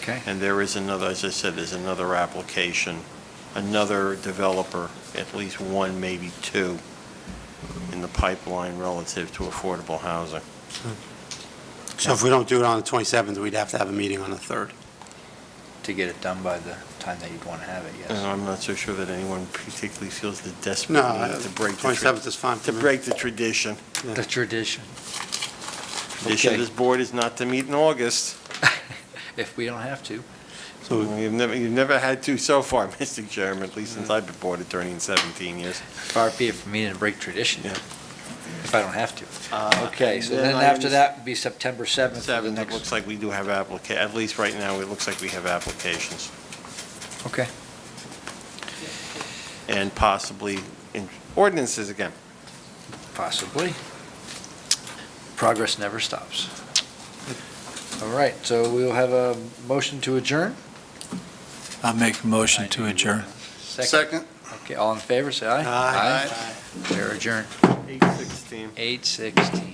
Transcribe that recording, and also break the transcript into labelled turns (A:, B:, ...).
A: Okay.
B: And there is another, as I said, there's another application, another developer, at least one, maybe two, in the pipeline relative to affordable housing.
C: So if we don't do it on the 27th, we'd have to have a meeting on the 3rd.
A: To get it done by the time that you'd want to have it,
B: And
A: yes.
B: I'm not so sure that anyone particularly feels the desperate
C: No,
B: need to break the, tra-
C: 27th is fine for
B: to
C: me.
B: break the tradition.
C: Yeah.
A: The tradition.
B: Tradition of
A: Okay.
B: this board is not to meet in August.
A: If we don't have to.
C: So
B: You've never, you've never had to so far, Mr. Chairman, at least since I've been board attorney in 17 years.
A: Far be it from me to break tradition.
B: Yeah.
A: If I don't have to. Okay, so
B: then
A: Uh, then
B: I
A: after
B: understand-
A: that would be September 7th. for the
B: Seven, it
A: next-
B: looks like we do have applica, at least right now, it looks like we have applications.
A: Okay.
B: and possibly in- ordinances again.
A: Possibly. Progress never stops. All right, so we'll have a motion to adjourn.
D: I'll make a motion to adjourn.
A: Second. Okay, all in favor, say aye.
C: Aye.
A: Aye. We're adjourned,
B: 816.
A: 8:16.